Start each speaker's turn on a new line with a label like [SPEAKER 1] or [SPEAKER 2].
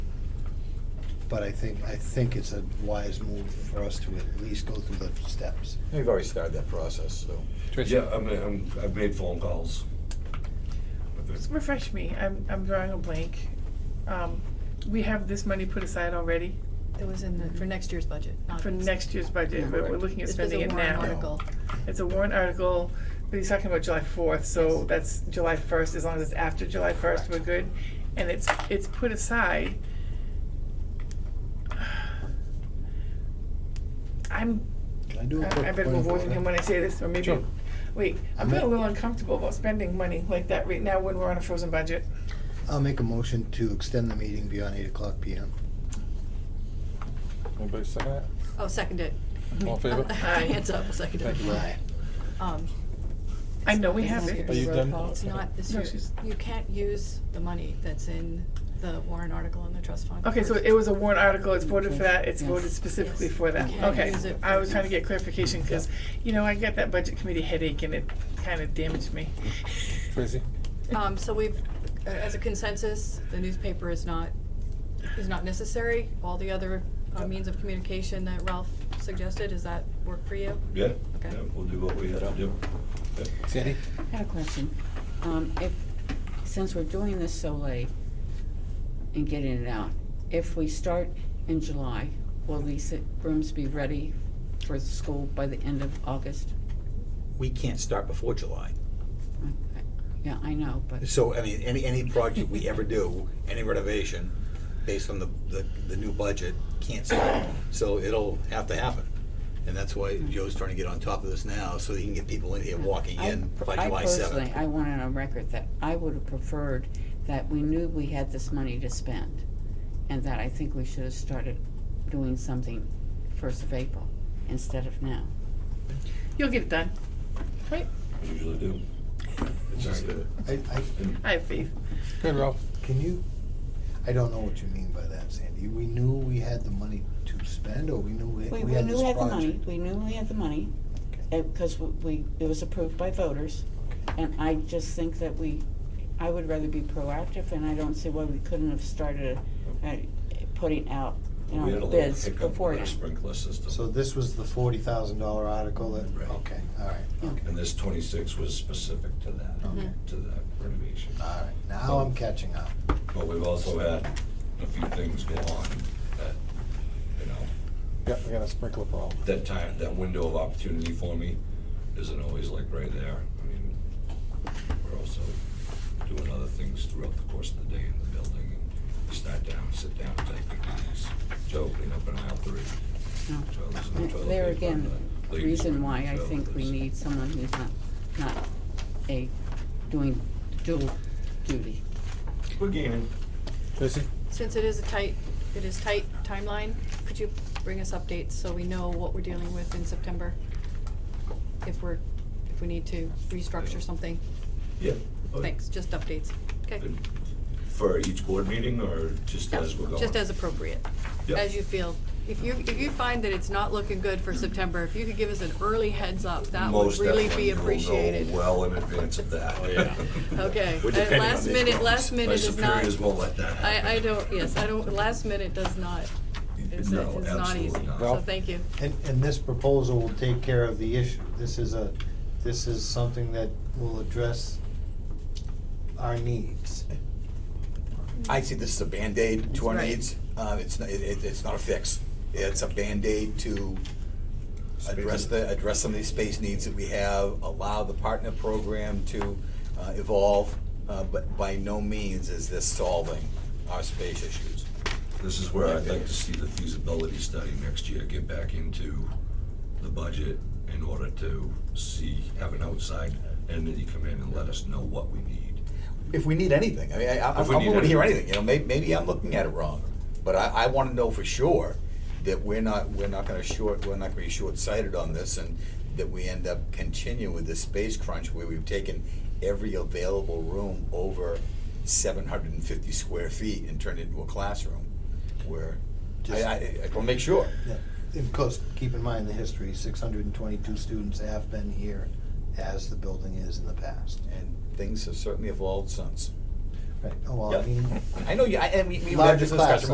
[SPEAKER 1] but I think, I think it's a wise move for us to at least go through the steps.
[SPEAKER 2] We've already started that process, so.
[SPEAKER 3] Yeah, I mean, I'm, I've made phone calls. But there's-
[SPEAKER 4] Just refresh me. I'm, I'm drawing a blank. Um, we have this money put aside already
[SPEAKER 5] It was in the, for next year's budget. not
[SPEAKER 4] for
[SPEAKER 5] this.
[SPEAKER 4] next year's budget, but we're looking at
[SPEAKER 5] This was a
[SPEAKER 4] spending it
[SPEAKER 5] warrant
[SPEAKER 4] now.
[SPEAKER 5] article.
[SPEAKER 4] It's a warrant article, but he's talking about July fourth, so
[SPEAKER 5] Yes.
[SPEAKER 4] that's July first, as long as it's after July first, we're good. And it's, it's put aside. I'm,
[SPEAKER 1] Can I do
[SPEAKER 4] I
[SPEAKER 1] a quick
[SPEAKER 4] I better
[SPEAKER 1] point
[SPEAKER 4] move
[SPEAKER 1] of
[SPEAKER 4] away from
[SPEAKER 1] order?
[SPEAKER 4] him when I say this, or maybe,
[SPEAKER 3] Sure.
[SPEAKER 4] wait, I'm
[SPEAKER 1] Ma-
[SPEAKER 4] feeling a little uncomfortable about spending money like that right now when we're on a frozen budget.
[SPEAKER 1] I'll make a motion to extend the meeting beyond eight o'clock PM.
[SPEAKER 3] Anybody second that?
[SPEAKER 5] Oh, second it.
[SPEAKER 3] All in favor?
[SPEAKER 5] Hands up, second it.
[SPEAKER 3] Thank you.
[SPEAKER 1] Aye.
[SPEAKER 5] Um,
[SPEAKER 4] I know we have it.
[SPEAKER 3] Are you done?
[SPEAKER 5] It's not this
[SPEAKER 4] No,
[SPEAKER 5] year.
[SPEAKER 4] she's-
[SPEAKER 5] You can't use the money that's in the warrant article in the trust fund.
[SPEAKER 4] Okay, so
[SPEAKER 5] first.
[SPEAKER 4] it was a warrant article, it's voted for that, it's voted specifically for that,
[SPEAKER 5] Yes.
[SPEAKER 4] okay.
[SPEAKER 5] Use it
[SPEAKER 4] I
[SPEAKER 5] for-
[SPEAKER 4] was trying to get clarification, cause, you know, I got that budget committee headache and it kinda damaged me.
[SPEAKER 3] Tracy?
[SPEAKER 5] Um, so we've, as a consensus, the newspaper is not, is not necessary. All the other uh, means of communication that Ralph suggested, does that work for you?
[SPEAKER 3] Yeah.
[SPEAKER 5] Okay.
[SPEAKER 3] Yeah, we'll do what we have to do. Sandy?
[SPEAKER 6] I have a question. Um, if, since we're doing this so late and getting it out, if we start in July, will these rooms be ready for the school by the end of August?
[SPEAKER 2] We can't start before July.
[SPEAKER 6] Okay. Yeah, I know, but,
[SPEAKER 2] So, I mean, any, any project we ever do, any renovation, based on the, the, the new budget, can't start. So it'll have to happen. And that's why Joe's trying to get on top of this now, so he can get people in here walking
[SPEAKER 6] I-
[SPEAKER 2] in by
[SPEAKER 6] I
[SPEAKER 2] July
[SPEAKER 6] personally,
[SPEAKER 2] seventh.
[SPEAKER 6] I want it on record that I would have preferred that we knew we had this money to spend and that I think we should have started doing something first of April instead of now.
[SPEAKER 4] You'll get it done, right?
[SPEAKER 3] Usually do. It's just, uh,
[SPEAKER 1] I, I,
[SPEAKER 4] I have faith.
[SPEAKER 3] Good, Ralph.
[SPEAKER 1] can you, I don't know what you mean by that, Sandy. We knew we had the money to spend, or we knew we
[SPEAKER 6] We,
[SPEAKER 1] we
[SPEAKER 6] we
[SPEAKER 1] had
[SPEAKER 6] knew
[SPEAKER 1] this
[SPEAKER 6] we had the money,
[SPEAKER 1] project?
[SPEAKER 6] we knew we had the money, because we, it was approved by voters. And I just think that we, I would rather be proactive, and I don't see why we couldn't have started uh, putting out, you
[SPEAKER 3] We had a
[SPEAKER 6] know,
[SPEAKER 3] little
[SPEAKER 6] bids
[SPEAKER 3] hiccup
[SPEAKER 6] before
[SPEAKER 3] with our
[SPEAKER 6] now.
[SPEAKER 3] sprinkler
[SPEAKER 1] So
[SPEAKER 3] system,
[SPEAKER 1] this was the forty thousand dollar article that,
[SPEAKER 3] Right.
[SPEAKER 1] okay, all right, okay,
[SPEAKER 3] and this twenty-six was specific to that,
[SPEAKER 1] Okay.
[SPEAKER 3] to that renovation.
[SPEAKER 1] all right. Now I'm catching up.
[SPEAKER 3] But we've also had a few things go on that, you know,
[SPEAKER 7] Yeah, I got a sprinkler problem.
[SPEAKER 3] that time, that window of opportunity for me isn't always like right there. I mean, we're also doing other things throughout the course of the day in the building. You start down, sit down, take good notes. Joe, clean up an aisle three.
[SPEAKER 6] No.
[SPEAKER 3] Joe, there's no toilet
[SPEAKER 6] There
[SPEAKER 3] paper
[SPEAKER 6] again,
[SPEAKER 3] on the
[SPEAKER 6] the
[SPEAKER 3] ladies'
[SPEAKER 6] reason
[SPEAKER 3] room.
[SPEAKER 6] why I
[SPEAKER 3] Joe,
[SPEAKER 6] think we
[SPEAKER 3] there's-
[SPEAKER 6] need someone who's not, not a, doing dual duty.
[SPEAKER 3] We're gaining.
[SPEAKER 7] Tracy?
[SPEAKER 5] Since it is a tight, it is tight timeline, could you bring us updates so we know what we're dealing with in September? If we're, if we need to restructure something?
[SPEAKER 3] Yeah.
[SPEAKER 5] Thanks, just updates, okay?
[SPEAKER 3] For each board meeting or just as we're going?
[SPEAKER 5] Just as appropriate,
[SPEAKER 3] Yep.
[SPEAKER 5] as you feel. If you, if you find that it's not looking good for September, if you could give us an early heads up, that would
[SPEAKER 3] Most
[SPEAKER 5] really
[SPEAKER 3] definitely.
[SPEAKER 5] be
[SPEAKER 3] We'll know
[SPEAKER 5] appreciated.
[SPEAKER 3] Well in advance of that. Oh, yeah.
[SPEAKER 5] Okay,
[SPEAKER 3] We're
[SPEAKER 5] and
[SPEAKER 3] depending on
[SPEAKER 5] last
[SPEAKER 3] these
[SPEAKER 5] minute-
[SPEAKER 3] roads.
[SPEAKER 5] last minute is
[SPEAKER 3] My
[SPEAKER 5] not-
[SPEAKER 3] superiors won't let that happen.
[SPEAKER 5] I, I don't, yes, I don't, last minute does not, it's, it's
[SPEAKER 3] No,
[SPEAKER 5] not
[SPEAKER 3] absolutely
[SPEAKER 5] easy,
[SPEAKER 3] not.
[SPEAKER 5] so thank you.
[SPEAKER 1] And, and this proposal will take care of the issue. This is a, this is something that will address our needs.
[SPEAKER 2] I see this as a Band-Aid to our
[SPEAKER 5] Right.
[SPEAKER 2] needs. Uh, it's, not- it, it- it's not a fix. It's a Band-Aid to address the, address some of these space needs that we have, allow the partner program to uh, evolve, uh, but by no means is this solving our space issues.
[SPEAKER 3] This is where I'd like to see the feasibility study next year, get back into the budget in order to see, have an outside entity come in and let us know what we need.
[SPEAKER 2] If we need anything, I mean, I, I- I'm
[SPEAKER 3] If we need
[SPEAKER 2] willing to hear
[SPEAKER 3] anything.
[SPEAKER 2] anything, you know, may, maybe I'm looking at it wrong, but I, I wanna know for sure that we're not, we're not gonna short, we're not gonna be short-sighted on this and that we end up continuing with this space crunch where we've taken every available room over seven hundred and fifty square feet and turned it into a classroom, where, I,
[SPEAKER 1] Just-
[SPEAKER 2] I, I will make sure.
[SPEAKER 1] Yeah, Of course, keep in mind the history, six hundred and twenty-two students have been here as the building is in the past.
[SPEAKER 2] And things have certainly evolved since.
[SPEAKER 1] Right, oh, well, I mean,
[SPEAKER 2] I know you, I, and we, we've had
[SPEAKER 1] Larger
[SPEAKER 2] this
[SPEAKER 1] class,
[SPEAKER 2] discussion